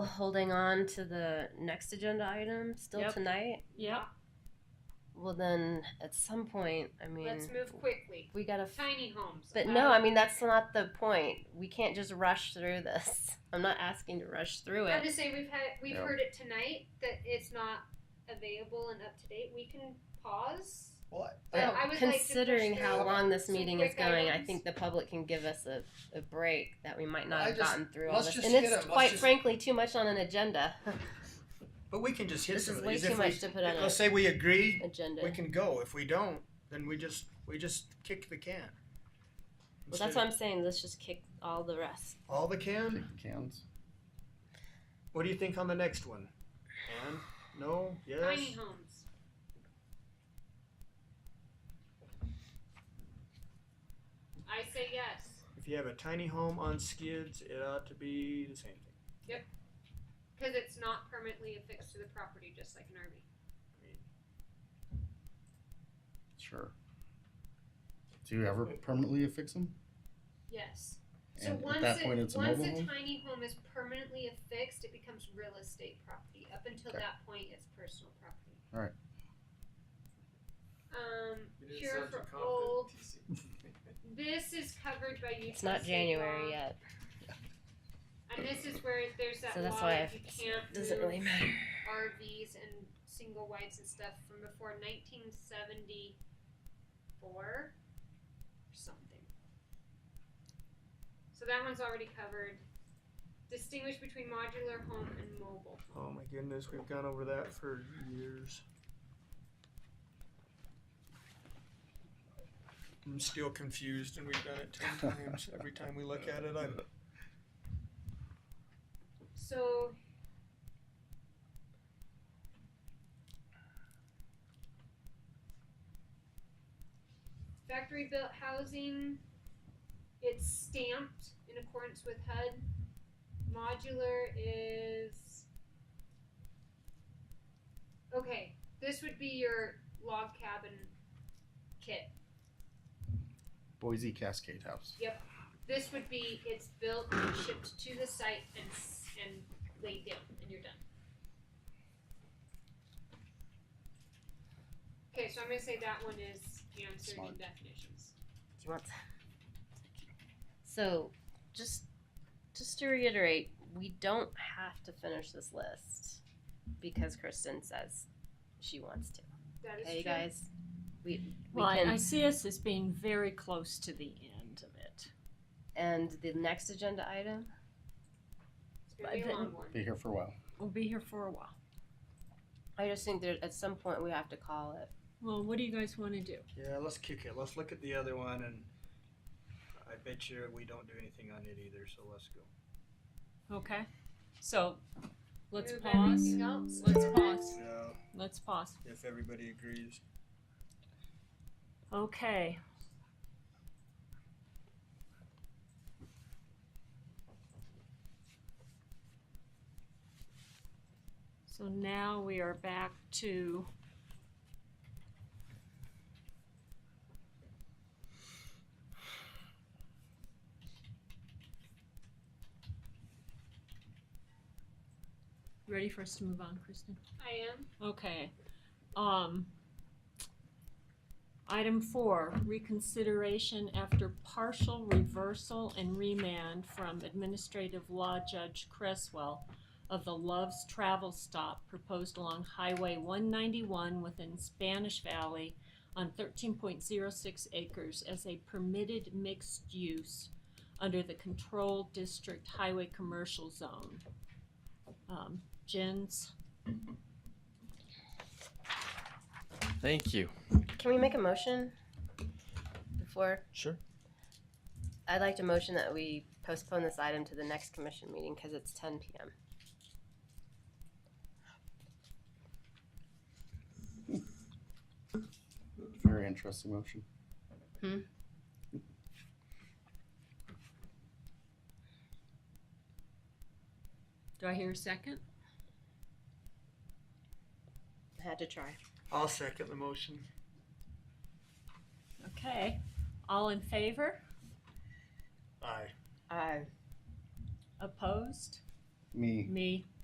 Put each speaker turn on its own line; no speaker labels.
holding on to the next agenda item still
Yep.
tonight?
Yep.
Well, then at some point, I mean,
Let's move quickly.
we gotta. F-
Tiny homes.
but
Uh,
no, I mean that's not the point. We can't just rush through this. I'm not asking to rush through
I'm
it.
just saying we've had we've
No.
heard it tonight that it's not available and up to date. We can pause.
What?
Yeah,
Well,
I would like to push
considering how
through
long this
some
meeting is
quick
going, I
items.
think the public can give us a, a break that we might not
I
have
just-
gotten through all
let's
this.
just
And
hit
it's
it, let's
quite
just-
frankly too much on an agenda.
But we can just hit
This
some
is
of
way
these.
too
If we-
much to put on a-
Let's say we agree,
agenda.
we can go. If we don't, then we just we just kick the can.
well, that's what I'm saying. Let's just kick all the rest.
All the can.
Kick the cans.
What do you think on the next one? And no, yes.
Tiny homes. I say yes.
If you have a tiny home on skids, it ought to be the same thing.
Because it's not permanently affixed to the property, just like an RV.
Sure. Do you ever permanently affix them?
Yes. So
And at
once,
that
it,
point, it's a
once
mobile home?
tiny home is permanently affixed, it becomes real estate property. Up until
Okay.
that point, it's personal property.
Alright.
Um, cure for old. This is covered by Utah
It's not
state
January
law,
yet,
And this is where there's that
so that's
law
why
that
I-
you
it
can't
doesn't
move
really matter.
RVs and single whites and stuff from before 1974 or something. So that one's already covered. Distinguish between modular home and mobile
Oh
home.
my goodness, we've gone over that for years. I'm still confused, and we've done it ten times. Every time we look at it, I'm
So factory built housing it's stamped in accordance with HUD. Modular is Okay, this would be your log cabin kit.
Boise Cascade House.
This would be it's built and shipped to the site and s- and laid down and you're done. Okay, so I'm gonna say that one is answered in
Smart.
definitions.
Do you want? So, just just to reiterate, we don't have to finish this list because Kristen says she wants to.
That is
Okay, you
true.
guys, we we
Well, I-
can.
I see us as being very close to the end of it.
And the next agenda item.
It's gonna be a
But-
long one.
Be here for a while.
We'll be here for a while.
I just think that at some point we have to call it.
Well, what do you guys want to do?
Yeah, let's kick it. Let's look at the other one, and I bet you we don't do anything on it either. So let's go.
Okay. So, let's
Move
pause.
everything else.
Let's pause.
Yeah,
Let's pause.
if everybody agrees.
Okay. So now we are back to Ready for us to move on, Kristen?
I am.
Okay. Um, item four, reconsideration after partial reversal and remand from Administrative Law Judge Cresswell of the Love's Travel Stop proposed along Highway one ninety-one within Spanish Valley on thirteen point zero six acres as a permitted mixed use under the Control District Highway Commercial Zone. Um, Jens?
Thank you.
Can we make a motion before?
Sure.
I'd like to motion that we postpone this item to the next commission meeting because it's 10 p.m.
Very interesting motion.
Do I hear a second?
I had to try.
I'll second the motion.
Okay. All in favor?
Aye.
Uh,
Opposed?
Me.
Me.